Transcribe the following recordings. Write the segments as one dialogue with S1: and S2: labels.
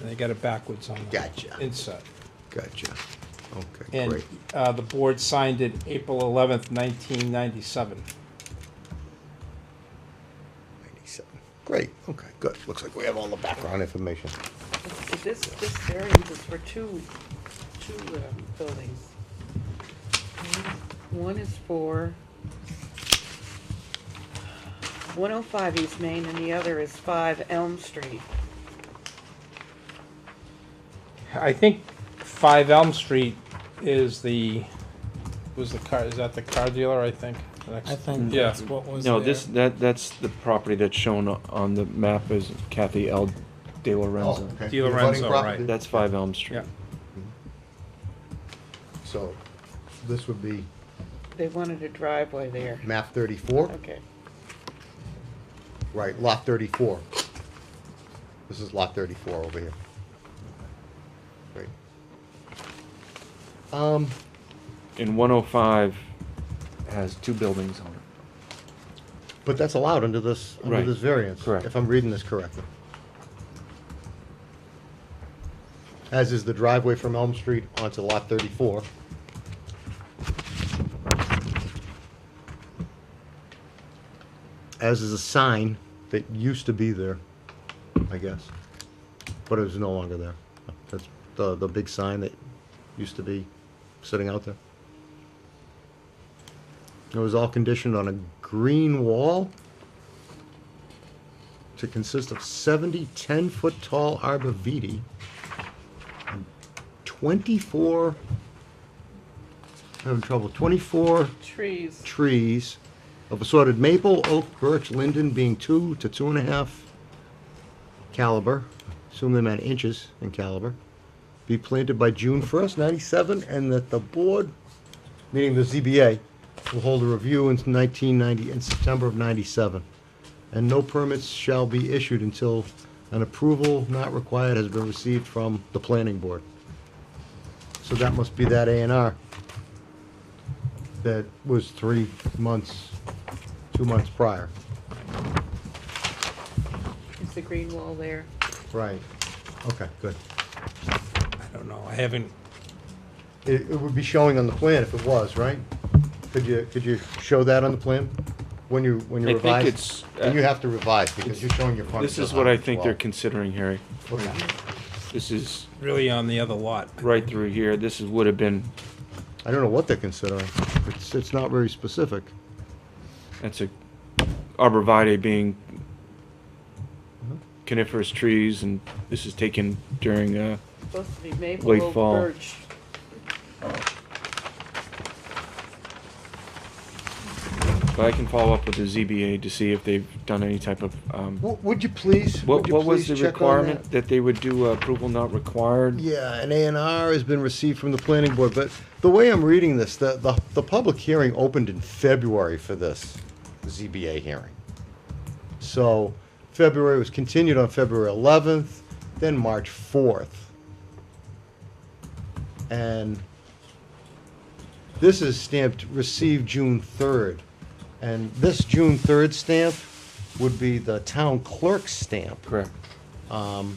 S1: and they got it backwards on the
S2: Gotcha.
S1: inside.
S2: Gotcha. Okay,
S1: And
S2: great.
S1: uh, the board signed it April 11th, 1997.
S2: 97. Great, okay, good. Looks like we have all the background information.
S3: This- This, this variance is for two, two um, buildings. One is for one oh five East Main and the other is five Elm Street.
S1: I think 5 Elm Street is the, was the car, is that the car dealer, I think?
S4: I think
S1: Yeah.
S4: that's what was
S5: No,
S4: there.
S5: this, that, that's the property that's shown o- on the map as Kathy L. De Lorenzo.
S2: Oh, okay.
S1: Di
S2: You're
S1: Lorenzo,
S2: running
S1: right.
S2: property?
S5: That's Five Elm Street.
S1: Yeah,
S2: So this would be
S3: They wanted a driveway there.
S2: map 34,
S3: Okay.
S2: right, lot 34. This is lot 34 over here. Great. Um,
S5: And one oh five has two buildings on it.
S2: But that's allowed under this, under
S5: Right.
S2: this variance.
S5: Correct.
S2: If I'm reading this correctly. As is the driveway from Elm Street onto Lot 34. As is a sign that used to be there, I guess, but it was no longer there. That's the, the big sign that used to be sitting out there. It was all conditioned on a green wall to consist of 70 10 foot tall arborvitae and 24, I'm having trouble, 24
S3: Trees.
S2: trees of assorted maple, oak, birch, linden being two to two and a half caliber, assume they meant inches in caliber, be planted by June first, ninety-seven, and that the board, meaning the ZBA, will hold a review in nineteen ninety, in September of ninety-seven. And no permits shall be issued until an approval not required has been received from the planning board. So that must be that A and R that was three months, two months prior.
S3: Is the green wall there?
S2: Right. Okay, good.
S1: I don't know, I haven't,
S2: It, it would be showing on the plan if it was, right? Could you, could you show that on the plan when you, when
S5: I
S2: you
S5: think
S2: revise?
S5: it's, uh,
S2: And you have to revise because
S5: it's-
S2: you're showing your frontage.
S5: This is
S2: on
S5: what I
S2: it as
S5: think they're
S2: well.
S5: considering, Harry.
S2: Okay.
S5: This is
S1: really on the other lot.
S5: right through here. This is, would have been,
S2: I don't know what they're considering. It's, it's not very specific.
S5: that's a arborvitae being
S2: Mm-hmm.
S5: coniferous trees and this is taken during, uh,
S3: Supposed to be maple,
S5: Late
S3: oak,
S5: fall.
S3: birch.
S5: but I can follow up with the ZBA to see if they've done any type of, um,
S2: W- Would you please, would
S5: What,
S2: you
S5: what was
S2: please
S5: the
S2: check on
S5: requirement,
S2: that?
S5: that they would do uh, approval not required?
S2: Yeah, an A and R has been received from the planning board, but the way I'm reading this, the, the, the public hearing opened in February for this ZBA hearing. So February was continued on February eleventh, then March fourth. And this is stamped received June third. And this June third stamp would be the town clerk's stamp
S5: Correct.
S2: either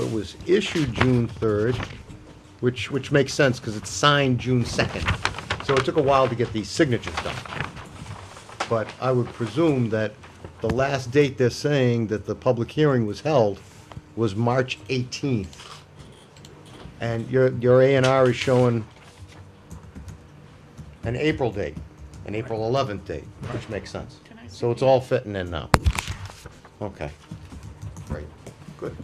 S2: it was issued June third, which, which makes sense, because it's signed June second. So it took a while to get these signatures done. But I would presume that the last date they're saying that the public hearing was held was March eighteenth. And your, your A and R is showing an April date, an April eleventh date, which makes sense.
S3: Can I
S2: So it's all fitting in now. Okay. Great, good.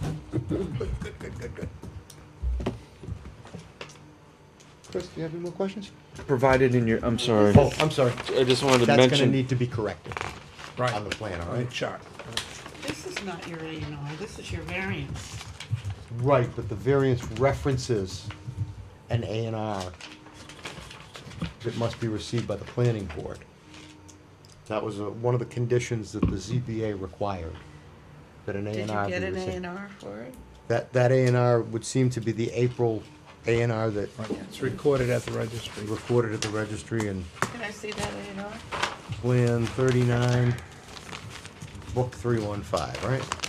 S2: Chris, do you have any more questions?
S5: Provided in your, I'm sorry,
S2: Oh, I'm sorry.
S5: I just wanted to
S2: That's gonna
S5: mention,
S2: need to be corrected
S1: Right,
S2: on the plan, all
S1: on the
S2: right?
S1: chart.
S3: This is not your A and R, this is your variance.
S2: Right, but the variance references an A and R that must be received by the planning board. That was uh, one of the conditions that the ZBA required, that an A
S3: Did
S2: and
S3: you
S2: R be
S3: get
S2: received.
S3: an A and R for it?
S2: That, that A and R would seem to be the April A and R that
S1: Right, It's recorded at the registry.
S2: recorded at the registry and
S3: Can I see that A and R?
S2: Plan thirty-nine, book three one five, right?